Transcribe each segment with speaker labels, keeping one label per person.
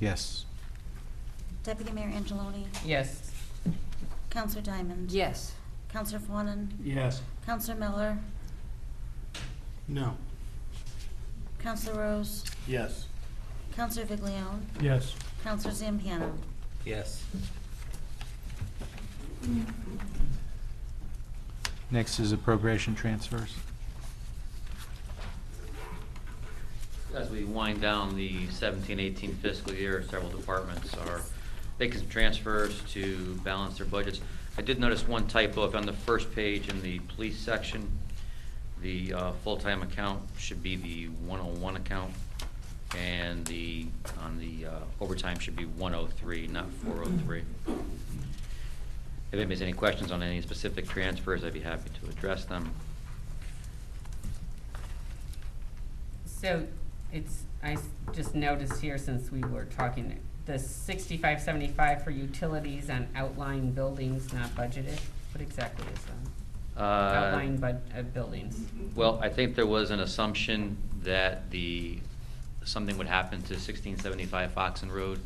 Speaker 1: Yes.
Speaker 2: Deputy Mayor Angeloni.
Speaker 3: Yes.
Speaker 2: Counselor Diamond.
Speaker 3: Yes.
Speaker 2: Counselor Fawnin.
Speaker 4: Yes.
Speaker 2: Counselor Miller.
Speaker 4: No.
Speaker 2: Counselor Rose.
Speaker 4: Yes.
Speaker 2: Counselor Viglione.
Speaker 4: Yes.
Speaker 2: Counselor Zampiano.
Speaker 5: Yes.
Speaker 1: Next is appropriation transfers.
Speaker 5: As we wind down the 17-18 fiscal year, several departments are making some transfers to balance their budgets. I did notice one typo, if on the first page in the police section, the uh, full-time account should be the one oh one account, and the, on the uh, overtime should be one oh three, not four oh three. If anybody's any questions on any specific transfers, I'd be happy to address them.
Speaker 3: So it's, I s- just noticed here since we were talking, the sixty-five seventy-five for utilities on outlying buildings not budgeted, what exactly is that?
Speaker 5: Uh,
Speaker 3: Outlying bud, uh, buildings.
Speaker 5: Well, I think there was an assumption that the, something would happen to sixteen seventy-five Foxen Road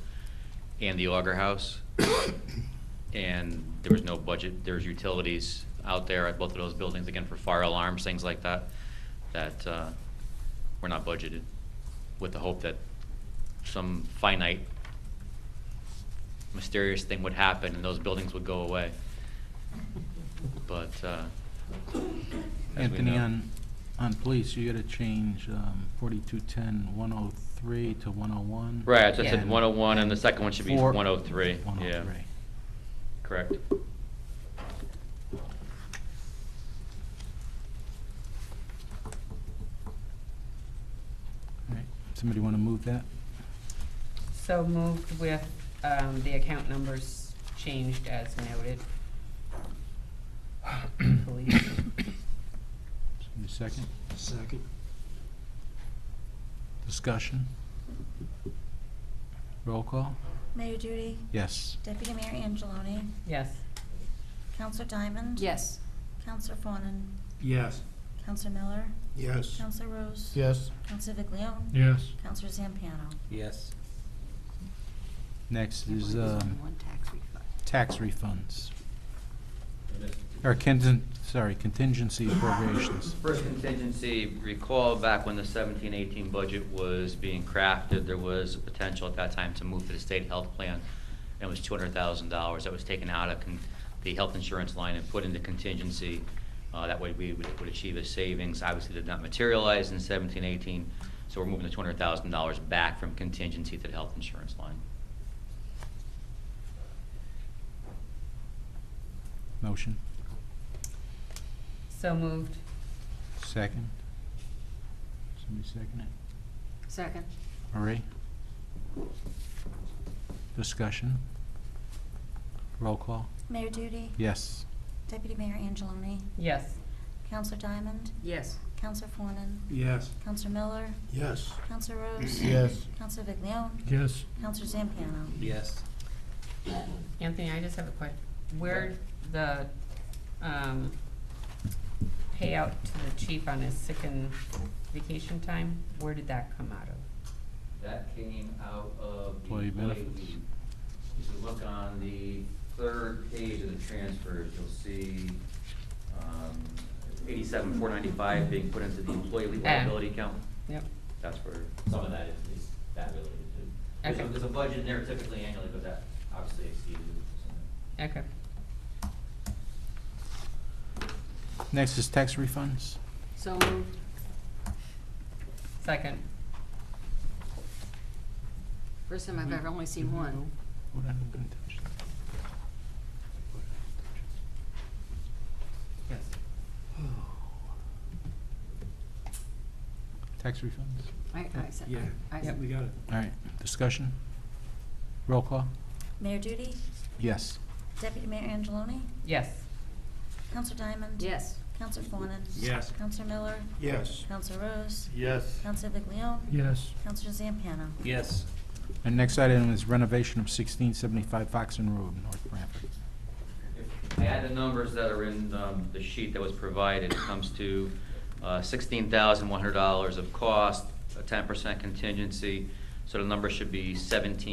Speaker 5: and the Auger House. And there was no budget, there's utilities out there at both of those buildings, again, for fire alarms, things like that, that, uh, were not budgeted, with the hope that some finite mysterious thing would happen and those buildings would go away. But, uh. as we
Speaker 1: Anthony,
Speaker 5: know-
Speaker 1: on, on police, you gotta change um, 4210, 103 to 101.
Speaker 5: Right, so I
Speaker 3: Yeah.
Speaker 5: said one oh one, and the second one should be
Speaker 1: Four-
Speaker 5: one oh three, yeah,
Speaker 1: 103.
Speaker 5: correct.
Speaker 1: All right. Somebody wanna move that?
Speaker 3: So moved with, um, the account numbers changed as noted. Police.
Speaker 1: Somebody second?
Speaker 4: Second.
Speaker 1: Discussion? Roll call?
Speaker 2: Mayor Duty.
Speaker 1: Yes.
Speaker 2: Deputy Mayor Angeloni.
Speaker 3: Yes.
Speaker 2: Counselor Diamond.
Speaker 3: Yes.
Speaker 2: Counselor Fawnin.
Speaker 4: Yes.
Speaker 2: Counselor Miller.
Speaker 4: Yes.
Speaker 2: Counselor Rose.
Speaker 4: Yes.
Speaker 2: Counselor Viglione.
Speaker 4: Yes.
Speaker 2: Counselor Zampiano.
Speaker 5: Yes.
Speaker 1: Next is um, tax refunds. Or contin, sorry, contingency appropriations.
Speaker 5: First contingency, recall back when the seventeen eighteen budget was being crafted, there was a potential at that time to move to the state health plan. And it was two hundred thousand dollars that was taken out of con- the health insurance line and put into contingency. Uh, that way we would, would achieve a savings, obviously did not materialize in seventeen eighteen, so we're moving the two hundred thousand dollars back from contingency to the health insurance line.
Speaker 1: Motion?
Speaker 3: So moved.
Speaker 1: Second? Somebody second it?
Speaker 3: Second.
Speaker 1: Marie? Discussion? Roll call?
Speaker 2: Mayor Duty.
Speaker 1: Yes.
Speaker 2: Deputy Mayor Angeloni.
Speaker 3: Yes.
Speaker 2: Counselor Diamond.
Speaker 3: Yes.
Speaker 2: Counselor Fawnin.
Speaker 4: Yes.
Speaker 2: Counselor Miller.
Speaker 4: Yes.
Speaker 2: Counselor Rose.
Speaker 4: Yes.
Speaker 2: Counselor Viglione.
Speaker 4: Yes.
Speaker 2: Counselor Zampiano.
Speaker 5: Yes.
Speaker 3: Anthony, I just have a question. Where the, um, payout to the chief on his sick and vacation time, where did that come out of?
Speaker 5: That came out of the
Speaker 1: Employee
Speaker 5: employee
Speaker 1: benefits.
Speaker 5: leave. If you look on the third page of the transfers, you'll see, um, eighty-seven, four ninety-five being put into the employee leave
Speaker 3: Ah.
Speaker 5: liability account.
Speaker 3: Yep,
Speaker 5: That's where some of that is, is that related to. There's a,
Speaker 3: Okay.
Speaker 5: there's a budget in there typically annually, but that obviously exceeded. so.
Speaker 3: okay.
Speaker 1: Next is tax refunds.
Speaker 3: So moved. Second.
Speaker 6: First time I've ever only seen one.
Speaker 1: What I don't touch.
Speaker 3: Yes.
Speaker 1: Tax refunds?
Speaker 6: I, I said,
Speaker 4: Yeah.
Speaker 6: I, I said,
Speaker 4: We got it.
Speaker 1: All right, discussion? Roll call?
Speaker 2: Mayor Duty.
Speaker 1: Yes.
Speaker 2: Deputy Mayor Angeloni.
Speaker 3: Yes.
Speaker 2: Counselor Diamond.
Speaker 6: yes,
Speaker 2: Counselor Fawnin.
Speaker 4: Yes.
Speaker 2: Counselor Miller.
Speaker 4: Yes.
Speaker 2: Counselor Rose.
Speaker 4: Yes.
Speaker 2: Counselor Viglione.
Speaker 4: Yes.
Speaker 2: Counselor Zampano.
Speaker 5: Yes.
Speaker 1: And next item is renovation of sixteen seventy-five Foxen Road, North Branford.
Speaker 5: If I add the numbers that are in um, the sheet that was provided, it comes to uh, sixteen thousand one hundred dollars of cost, a ten percent contingency, so the number should be seventeen